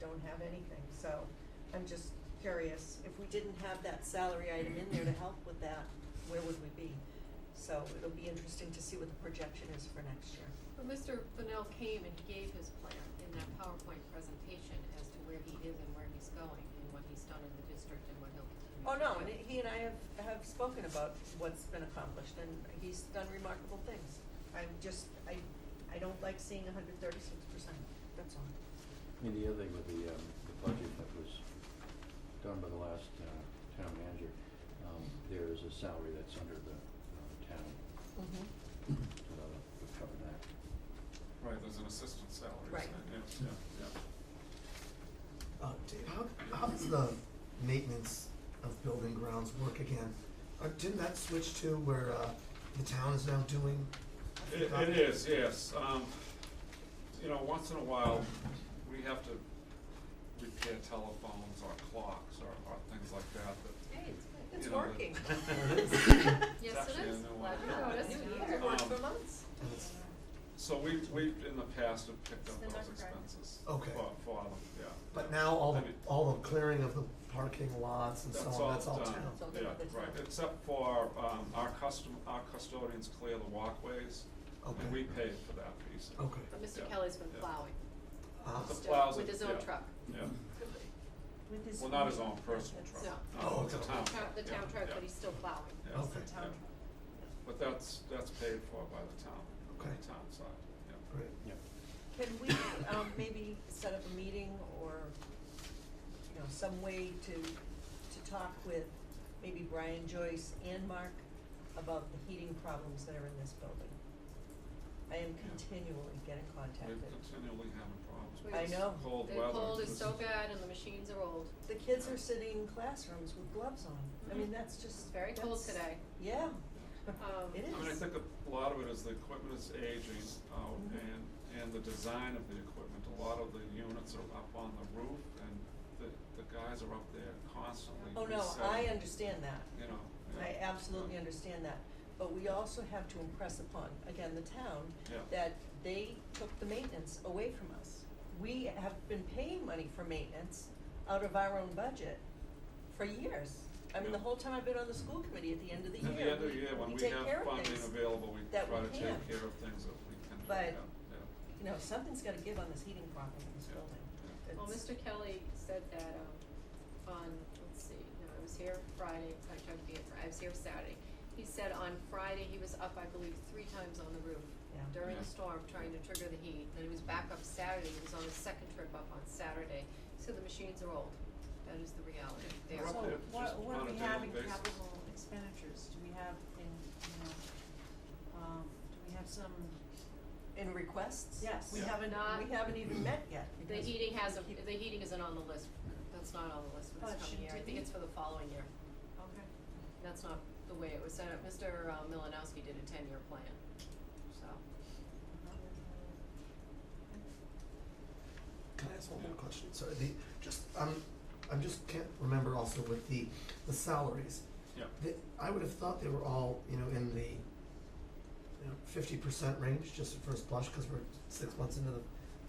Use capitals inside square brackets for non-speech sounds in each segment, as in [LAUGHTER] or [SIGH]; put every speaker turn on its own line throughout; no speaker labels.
don't have anything, so I'm just curious, if we didn't have that salary item in there to help with that, where would we be? So it'll be interesting to see what the projection is for next year.
But Mr. Fennell came and he gave his plan in that PowerPoint presentation as to where he is and where he's going and what he's done in the district and what he'll continue
Oh,
to do.
no, and he and I have, have spoken about what's been accomplished, and he's done remarkable things. I'm just, I, I don't like seeing hundred thirty-six percent, that's all.
I mean, the other thing with the, um, the budget that was done by the last, uh, town manager, um, there is a salary that's under the, uh, town, so that'll cover that.
Right, there's an assistant salary,
Right.
isn't it? Yeah, yeah, yeah.
Uh, Dave, how, how does the maintenance of building grounds work again? Uh, didn't that switch to where, uh, the town is now doing?
It, it is, yes. Um, you know, once in a while, we have to repair telephones or clocks or, or things like that, but.
Hey, it's good.
It's
you know, [LAUGHS]
[LAUGHS]
working.
that-
Yes,
It's
it
actually a
is.
new
Glad you
one.
noticed.
New
Yeah.
year, worked for
Um,
months.
And it's-
So we, we, in the past, have picked up
It's the
those
Nutcracker.
expenses.
Okay.
For, for them, yeah.
But now all
I
the,
mean,
all the clearing of the parking lots and so on, that's all town.
done.
So
Yeah,
they're- they're
right,
done.
except for, um, our custom, our custodians clear the walkways, and
Okay.
we pay for that piece.
Okay.
But Mr.
Yeah,
Kelly's been
yeah.
plowing
Uh,
The
still
plows
with
it-
his own
yeah,
truck.
Yeah.
With his.
Well, not his own personal
That's-
truck.
No.
Oh,
it's a
okay.
The town-
town truck.
The
yeah,
town truck,
yeah.
but he's still plowing.
Yeah,
Okay.
It's the town
yeah.
truck.
But that's, that's paid for by the town, the
Okay.
town side, yeah.
great.
Yep.
Can we, um, maybe set up a meeting or, you know, some way to, to talk with maybe Brian Joyce and Mark about the heating problems that are in this building? I am continually getting contacted.
We're continually having problems with
I
this
know.
cold
The
weather.
cold
This
is so bad and the machines are old.
The kids are sitting in classrooms with gloves on. I mean,
Mhm.
that's just.
It's very cold
that's-
today.
Yeah.
Um,
It
I mean, I
is.
think a lot of it is the equipment is aging out
Mm-hmm.
and, and the design of the equipment. A lot of the units are up on the roof and the, the guys are up there constantly
Oh, no, I
resetting,
understand that.
you know. yeah.
I absolutely understand that, but we also have to impress upon, again, the town,
Yeah.
that they took the maintenance away from us. We have been paying money for maintenance out of our own budget for years. I mean, the
Yeah.
whole time I've been on the school committee, at the end of the
At the
year,
end of the year, when
we
we
take
have
care of
funding
things
available, we
that we
try to take
can.
care of things that we can do, yeah,
But-
yeah.
You know, something's gotta give on this heating problem in this
Yeah.
building.
Yeah.
Well,
It's-
Mr. Kelly said that, um, on, let's see, no, I was here Friday, I tried to be here, Fri- I was here Saturday. He said on Friday, he was up, I believe, three times on the roof
Yeah.
during the
Yeah.
storm, trying to trigger the heat. Then he was back up Saturday, he was on his second trip up on Saturday, so the machines are old. That is the reality. They are
We're up
old.
there
So what,
just
what
on
do
a
we
daily
have in
basis.
capital expenditures? Do we have in, you know, um, do we have some,
In requests?
Yes.
We
Yeah.
haven't,
Not-
we haven't even met yet.
The
because
heating hasn't,
keep-
the heating isn't on the list, that's not on the list for
Oh,
this
it
coming
shouldn't
year, I
it
think
be?
it's for the following year.
okay.
That's not the way it was set up. Mr. uh, Milanowski did a ten-year plan, so.
Can I ask one more question? Sorry, the, just, um, I'm just can't remember also with the, the salaries.
Yeah.
They, I would have thought they were all, you know, in the, you know, fifty percent range, just at first blush, cause we're six months into the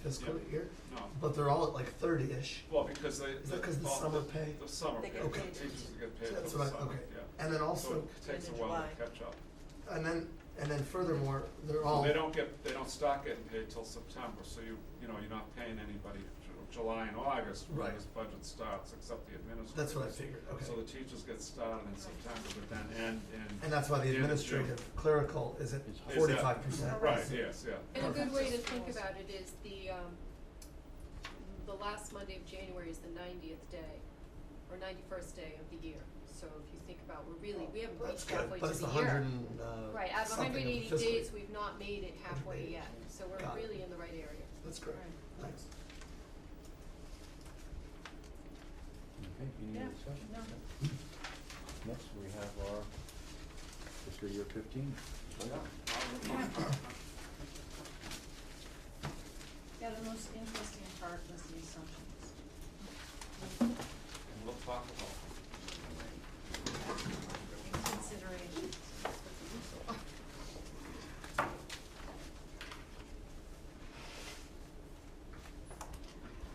fiscal
Yeah.
year.
No.
But they're all at like thirty-ish.
Well, because they.
Is that 'cause the
all
summer pay?
The summer
They
pay,
get
paid.
the teachers get paid
So
for the
that's
summer,
what I-
yeah.
okay. And then also-
So it takes a
End of
while to
July.
catch up.
And then, and then furthermore, they're
So
all.
They don't get, they don't start getting paid till September, so you, you know, you're not paying anybody till July and August when
Right.
this budget starts, except the administrators.
That's what I figured, okay.
So the teachers get started in September, but then end in.
And that's why the
end of June.
administrative clerical is at
Is that-
forty-five percent.
Right, yes, yeah.
And a good
Perfect.
way to think about it is the, um, the last Monday of January is the ninetieth day, or ninety-first day of the year. So if you think about, we're really, we haven't
That's
reached
good,
halfway to the year.
but it's the hundred and, uh,
Right, out of
something
hundred and eighty
fiscal year.
days, we've not made it halfway
180.
yet, so
Got
we're
it.
really in the right area.
That's great, thanks.
Okay, any
Yeah,
other discussion?
no.
Next, we have our fiscal year fifteen.
Yeah.
Yeah, the most interesting part